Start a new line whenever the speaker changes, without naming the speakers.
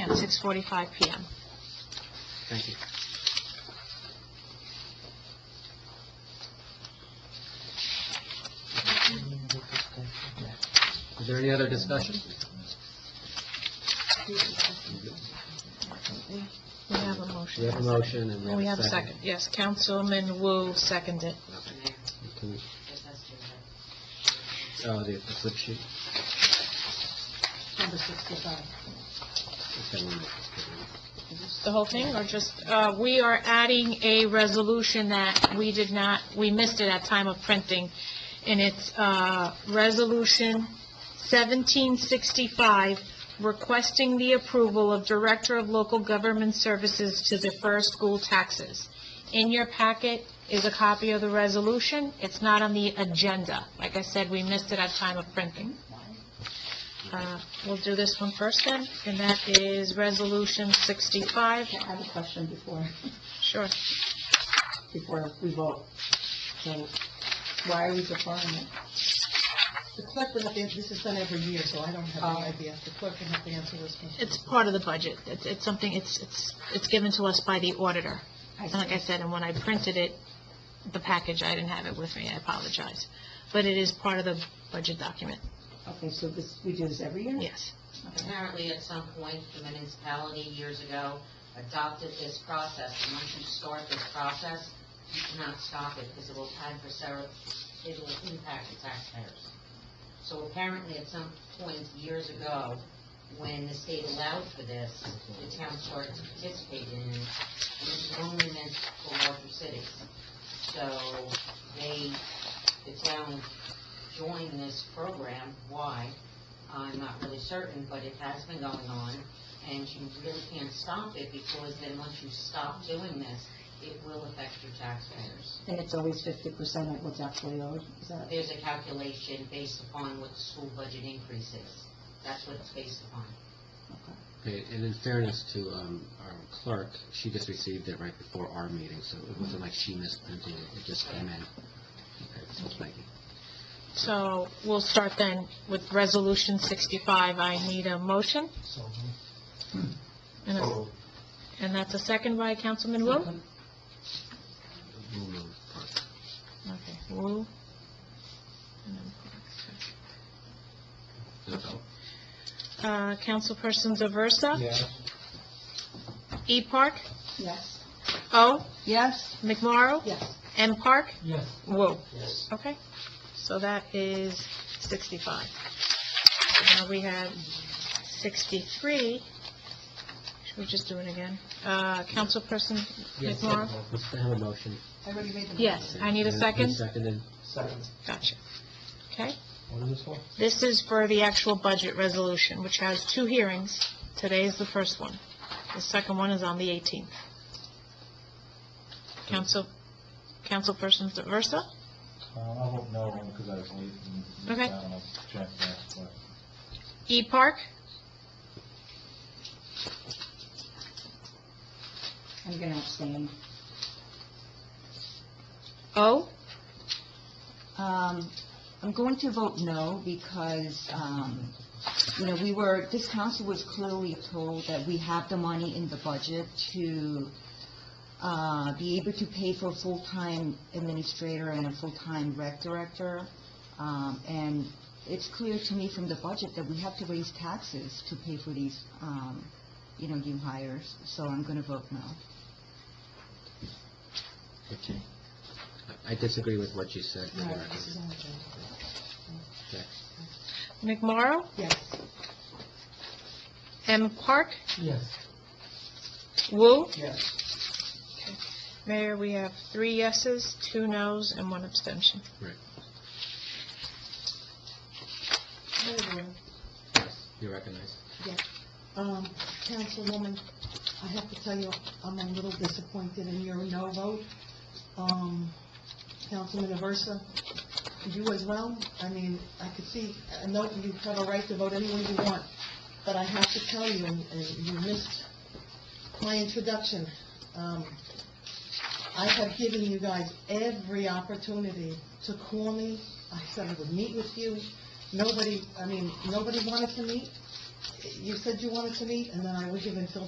at 6:45 PM.
Thank you. Is there any other discussion?
We have a
We
motion.
have a motion and
Oh, We have a second, yes. Councilman Wu seconded.
Can we- Oh, the the flip sheet?
Number 65.
Okay, one minute.
The whole thing, or just, uh, we are adding a resolution that we did not, we missed it at time of printing, and it's uh, Resolution 1765, requesting the approval of Director of Local Government Services to defer school taxes. In your packet is a copy of the resolution. It's not on the agenda. Like I said, we missed it at time of printing. Uh, We'll do this one first then, and that is Resolution 65.
I have a question before,
Sure.
before we vote. So why are we deferring it?
The clerk would have to answer, this is done every year, so I don't
Oh.
have any idea. The clerk would have to answer this question.
It's part of the budget. It's, it's something, it's, it's, it's given to us by the auditor. And like I said, and when I printed it, the package, I didn't have it with me, I apologize. But it is part of the budget document,
Okay, so this, we do this every year?
yes.
Apparently, at some point, the municipality years ago adopted this process. And once you start this process, you cannot stop it because it will time for several, it will impact the taxpayers. So apparently, at some point years ago, when the state allowed for this, the town started to participate in it. And it's only meant for larger cities. So they, the town joined this program. Why? I'm not really certain, but it has been going on, and you really can't stop it, because then once you stop doing this, it will affect your taxpayers.
And it's always 50% of what's actually owed, is that?
There's a calculation based upon what the school budget increase is. That's what it's based upon.
Okay, and in fairness to um, our clerk, she just received it right before our meeting, so it wasn't like she misprinted it, it just came in. Okay, so thank you.
So we'll start then with Resolution 65. I need a motion. And a- And that's a second by Councilman Wu?
We'll move on.
Okay, Wu. And then-
No vote.
Uh, Councilperson Aversa?
Yeah.
E. Park?
Yes.
O.
Yes?
McMorro?
Yes.
M. Park?
Yes.
Wu.
Yes.
Okay, so that is 65. Now we have 63. Should we just do it again? Uh, Councilperson
Yes,
McMorro?
Let's have a motion.
I already made the...
Yes, I need a second.
Seconded.
Second.
Gotcha. Okay,
What is this one?
this is for the actual budget resolution, which has two hearings. Today is the first one. The second one is on the 18th. Council, Councilperson Aversa?
Uh, I won't know when, because I was late and...
Okay.
I don't know, check that, but...
E. Park?
I'm gonna abstain.
O.
Um, I'm going to vote no because, um, you know, we were, this council was clearly told that we have the money in the budget to, uh, be able to pay for a full-time administrator and a full-time rec director. Um, and it's clear to me from the budget that we have to raise taxes to pay for these, um, you know, new hires, so I'm gonna vote no.
Okay. I- I disagree with what you said. Laura.
This is on the agenda.
McMorro?
Yes.
M. Park?
Yes.
Wu?
Yes.
Mayor, we have three yeses, two noes, and one abstention.
Right,
Hold on.
you recognize.
Um, Councilwoman, I have to tell you, I'm a little disappointed in your no vote. Um, Councilman Aversa, you as well? I mean, I could see, I know you have a right to vote any way you want, but I have to tell you, and and you missed my introduction. Um, I have given you guys every opportunity to call me. I said I would meet with you. Nobody, I mean, nobody wanted to meet. you said you wanted to meet, and then I would give until